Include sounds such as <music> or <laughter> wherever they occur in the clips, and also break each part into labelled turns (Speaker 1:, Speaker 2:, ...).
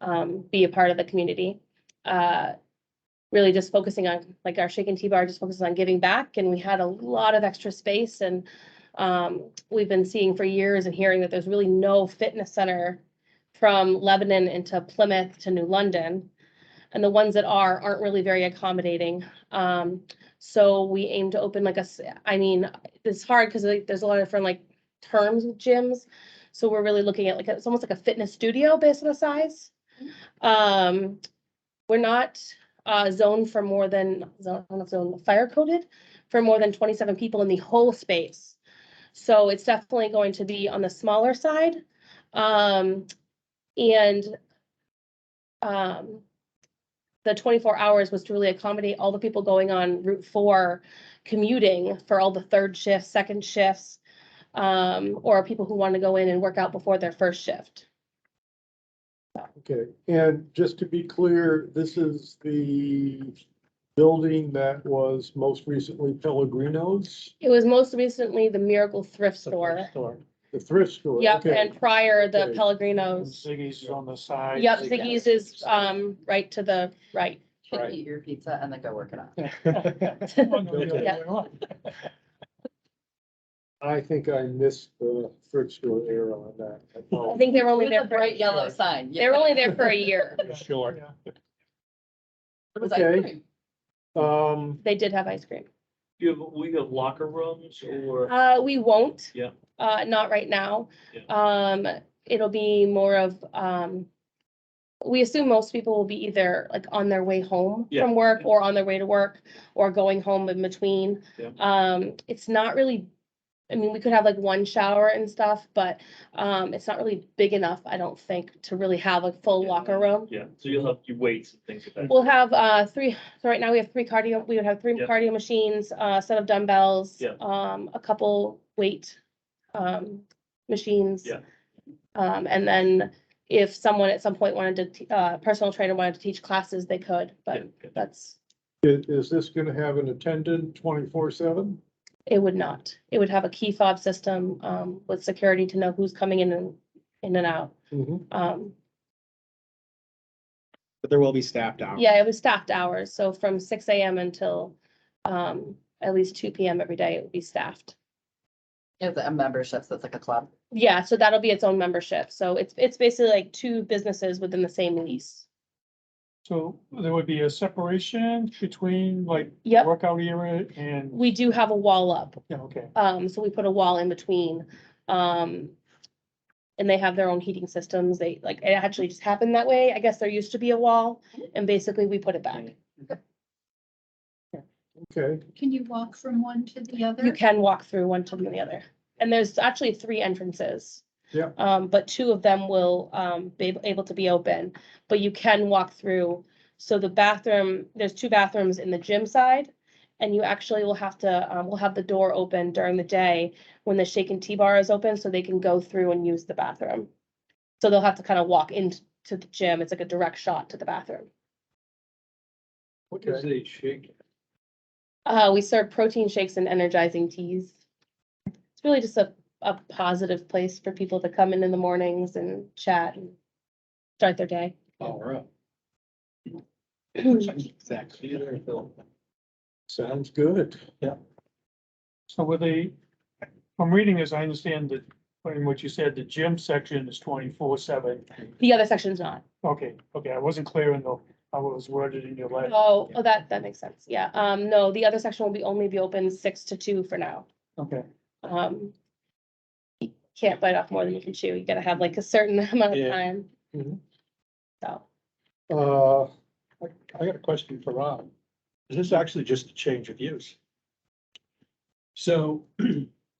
Speaker 1: um, be a part of the community. Uh, really just focusing on, like our Shake and Tea Bar just focuses on giving back and we had a lot of extra space and um, we've been seeing for years and hearing that there's really no fitness center from Lebanon into Plymouth to New London. And the ones that are, aren't really very accommodating. Um, so we aim to open like a, s- I mean, it's hard because like there's a lot of different like terms with gyms. So we're really looking at like, it's almost like a fitness studio based on the size. Um, we're not uh zoned for more than, zone, I don't know if zone, fire coded for more than twenty-seven people in the whole space. So it's definitely going to be on the smaller side. Um, and um, the twenty-four hours was to really accommodate all the people going on Route Four commuting for all the third shifts, second shifts, um, or people who want to go in and work out before their first shift.
Speaker 2: Okay, and just to be clear, this is the building that was most recently Pellegrino's?
Speaker 1: It was most recently the Miracle Thrift Store.
Speaker 2: The thrift store?
Speaker 1: Yep,
Speaker 2: okay.
Speaker 1: and prior the
Speaker 2: Okay.
Speaker 1: Pellegrinos.
Speaker 3: Ziggy's is on the side.
Speaker 1: Yep, Ziggy's is,
Speaker 3: <laughs>
Speaker 1: um, right to the right.
Speaker 4: Should eat your pizza and then go work it out.
Speaker 2: I think I missed the thrift store era on that.
Speaker 1: <laughs> I think they were only
Speaker 4: With
Speaker 1: there
Speaker 4: a
Speaker 1: for,
Speaker 4: bright yellow sign.
Speaker 1: they were only there for a year.
Speaker 3: Sure.
Speaker 4: <laughs> It was ice
Speaker 2: Okay.
Speaker 4: cream.
Speaker 2: Um,
Speaker 1: They did have ice cream.
Speaker 5: Do you have, we have locker rooms or,
Speaker 1: Uh, we won't.
Speaker 5: Yeah.
Speaker 1: Uh, not right now.
Speaker 5: Yeah.
Speaker 1: Um, it'll be more of, um, we assume most people will be either like on their way home
Speaker 5: Yeah.
Speaker 1: from work or on their way to work or going home in between.
Speaker 5: Yeah.
Speaker 1: Um, it's not really, I mean, we could have like one shower and stuff, but, um, it's not really big enough, I don't think, to really have a full
Speaker 5: Yeah.
Speaker 1: locker room.
Speaker 5: yeah, so you'll have your weights and things like that.
Speaker 1: We'll have uh three, so right now we have three cardio, we would have three
Speaker 5: Yeah.
Speaker 1: cardio machines, uh, a set of dumbbells.
Speaker 5: Yeah.
Speaker 1: Um, a couple weight um machines.
Speaker 5: Yeah.
Speaker 1: Um, and then if someone at some point wanted to, t- uh, personal trainer wanted to teach classes, they could,
Speaker 5: Yeah,
Speaker 1: but
Speaker 5: yeah.
Speaker 1: that's,
Speaker 2: i- is this gonna have an attendant twenty-four seven?
Speaker 1: it would not. It would have a key fob system um with security to know who's coming in and in and out. Um,
Speaker 6: But there will be staffed hours.
Speaker 1: yeah, it was staffed hours, so from six AM until um at least two PM every day, it would be staffed.
Speaker 4: It's a membership, so it's like a club.
Speaker 1: Yeah, so that'll be its own membership. So it's, it's basically like two businesses within the same lease.
Speaker 3: So there would be a separation between like
Speaker 1: Yep.
Speaker 3: workout area and,
Speaker 1: We do have a wall up.
Speaker 3: yeah, okay.
Speaker 1: Um, so we put a wall in between. Um, and they have their own heating systems. They, like, it actually just happened that way. I guess there used to be a wall and basically we put it back.
Speaker 2: Okay,
Speaker 7: Can you walk from one to the other?
Speaker 1: You can walk through one to the other. And there's actually three entrances.
Speaker 2: Yeah.
Speaker 1: Um, but two of them will, um, be ab- able to be open, but you can walk through. So the bathroom, there's two bathrooms in the gym side. And you actually will have to, um, will have the door open during the day when the shake and tea bar is open, so they can go through and use the bathroom. So they'll have to kind of walk into the gym. It's like a direct shot to the bathroom.
Speaker 5: What does a shake?
Speaker 1: Uh, we serve protein shakes and energizing teas. It's really just a, a positive place for people to come in in the mornings and chat and start their day.
Speaker 6: Power up. Exactly.
Speaker 2: sounds good.
Speaker 3: So were they, I'm reading as I understand that, from what you said, the gym section is twenty-four seven.
Speaker 1: The other section's not.
Speaker 3: Okay, okay, I wasn't clear in the, I was worded in your letter.
Speaker 1: Oh, oh, that, that makes sense. Yeah. Um, no, the other section will be only be open six to two for now.
Speaker 3: Okay,
Speaker 1: Um. you Can't bite off more than you can chew. You gotta have like a certain <laughs> amount of
Speaker 3: Yeah. Mm-hmm.
Speaker 1: time.
Speaker 2: Mhm.
Speaker 1: So,
Speaker 2: Uh,
Speaker 8: I got a question for Rob. Is this actually just a change of use? So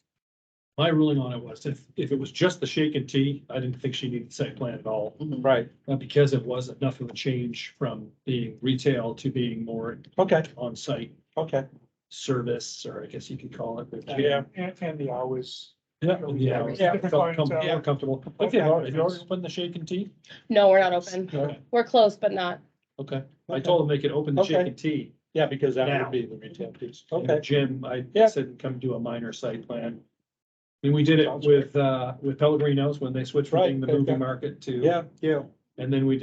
Speaker 8: <clears throat> my ruling on it was if, if it was just the shake and tea, I didn't think she needed site plan at all.
Speaker 4: Mhm.
Speaker 8: Right. But because it was enough of a change from being retail to being more. Okay. On-site. Okay. Service, or I guess you could call it.
Speaker 3: yeah, and, and the hours.
Speaker 8: Yeah, yeah,
Speaker 3: Yeah.
Speaker 8: yeah, felt com- more comfortable. Okay, have you already opened the shake and tea?
Speaker 1: no, we're not open.
Speaker 8: Okay,
Speaker 1: We're closed, but not.
Speaker 8: okay. I told them they could open the shake and tea.
Speaker 6: Yeah, because
Speaker 8: that would be
Speaker 6: the retail piece.
Speaker 8: And the Gym, I
Speaker 6: Yeah.
Speaker 8: said, come do a minor site plan. I mean, we did it with, uh, with Pellegrino's when they switched from
Speaker 6: Right,
Speaker 8: being the
Speaker 6: they've
Speaker 8: movie
Speaker 6: got-
Speaker 8: market to.
Speaker 6: Yeah.
Speaker 2: yeah,
Speaker 8: And then we did